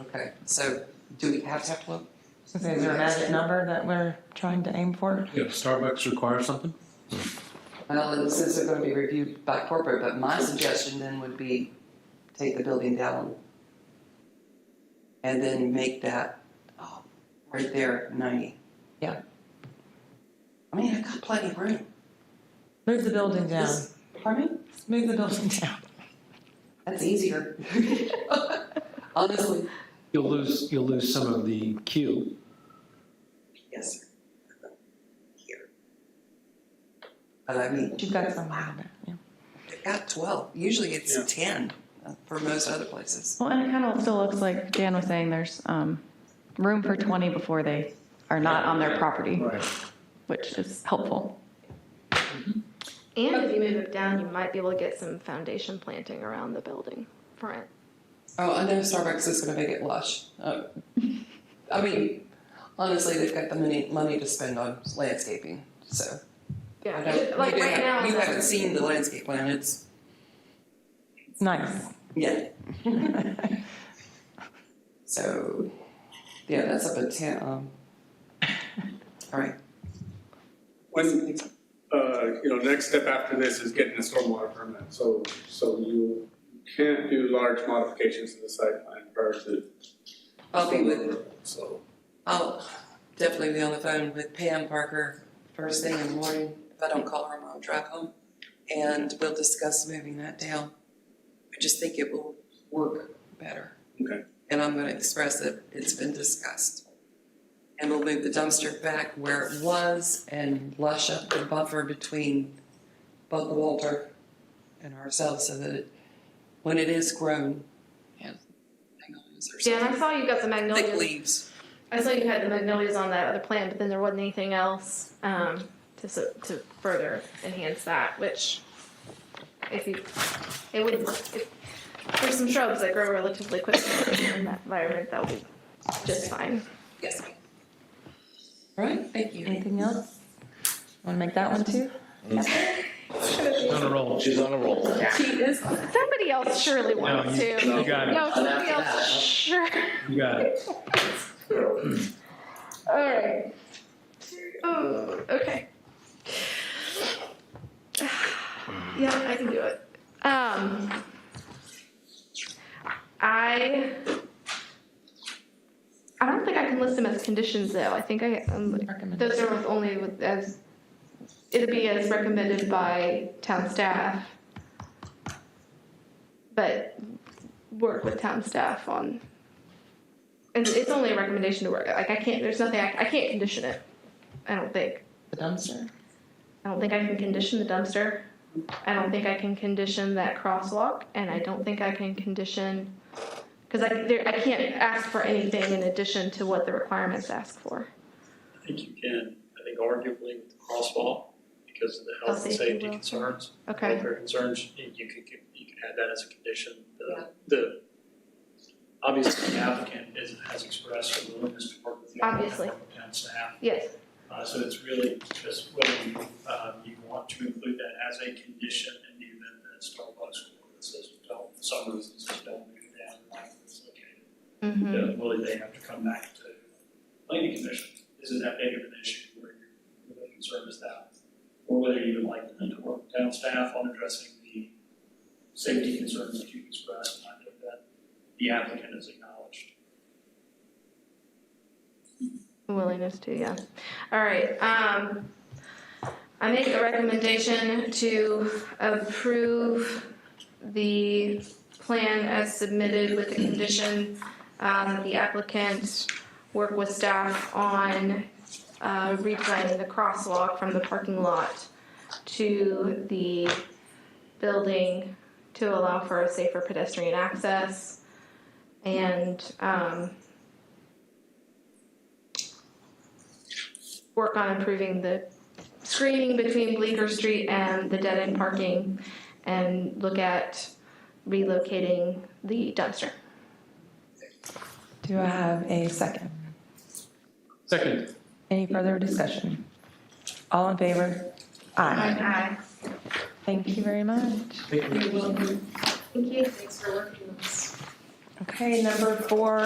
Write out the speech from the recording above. Okay, so do we have to have to look? So Is there a magic number that we're trying to aim for? Yeah, Starbucks requires something? Well, and since they're gonna be reviewed by corporate, but my suggestion then would be take the building down. And then make that, oh, right there, ninety. Yeah. I mean, I've got plenty of room. Move the building down. This- Pardon me? Move the building down. That's easier. Honestly, You'll lose, you'll lose some of the queue. yes. sir. Here. But I mean, You've got some room there. yeah. they've got twelve, usually it's ten uh, for most other places. Well, and it kind of still looks like Dan was saying, there's um, room for 20 before they are not on their property, which is helpful. And if you move it down, you might be able to get some foundation planting around the building front. Oh, I know Starbucks is going to make it lush. Uh, I mean, honestly, they've got the money money to spend on landscaping. So Yeah, I don't, like you, right now. have, you the- haven't seen the landscape plan. It's It's nice. yeah. so yeah, that's up at ten. Um, all right. When, uh, you know, next step after this is getting a stormwater permit, so, so you can't do large modifications to the site plan prior to. I'll be with. So, I'll definitely be on the phone with Pam Parker first thing in the morning. If I don't call her, I'll drive home, and we'll discuss moving that down. I just think it will work better. Okay. And I'm gonna express that it's been discussed. And we'll move the dumpster back where it was and lush up the buffer between Bud Walter and ourselves so that it, when it is grown, yeah, hang on, is there Yeah, and I something? saw you got the Thick magnolias. leaves. I saw you had the magnolias on that other plan, but then there wasn't anything else um, to su- to further enhance that. Which, if you, it would. If, there's some shrubs that grow relatively quickly in that environment. That would be just fine. Yes. All right, thank you. Anything else? Want to make that one too? On a roll. She's on a roll. Somebody else surely wants you- to. you got it. No, somebody else. Sure. You got it. All right. Oh, okay. Yeah, I can do it. Um, I I don't think I can list them as conditions though. I think I um, those are with only with as it'd be as recommended by town staff, but work with town staff on and it's only a recommendation to work. Like I can't. There's nothing. I, I can't condition it. I don't think. The dumpster? I don't think I can condition the dumpster. I don't think I can condition that crosswalk, and I don't think I can condition because I there, I can't ask for anything in addition to what the requirements ask for. I think you can, I think arguably with the crosswalk, because of the health and Health safety safety will. concerns, Okay. welfare concerns, you you could, you could add that as a condition. Yeah. The, the, obviously the applicant is, has expressed a willingness to work with the Obviously. applicant and staff. Yes. Uh, so it's really just whether you, um, you want to include that as a condition in the event that Starbucks says, don't, for some reason says, don't do that, like it's located Mm-hmm. yeah, will they have to come back to planning commission? Is it that big of an issue where you're really concerned is that? Or whether you would like them to work with town staff on addressing the safety concerns that you expressed, and I think that the applicant has acknowledged. Willingness to, yeah. All right, um, I make a recommendation to approve the plan as submitted with the condition, um, that the applicant work with staff on, uh, redesigning the crosswalk from the parking lot to the building to allow for safer pedestrian access. And, um, work on improving the screening between Bleecker Street and the dead end parking and look at relocating the dumpster. Do I have a second? Second. Any further discussion? All in favor? Aye. Aye. Thank you very much. Thank you. Thanks for working on this. Okay, number four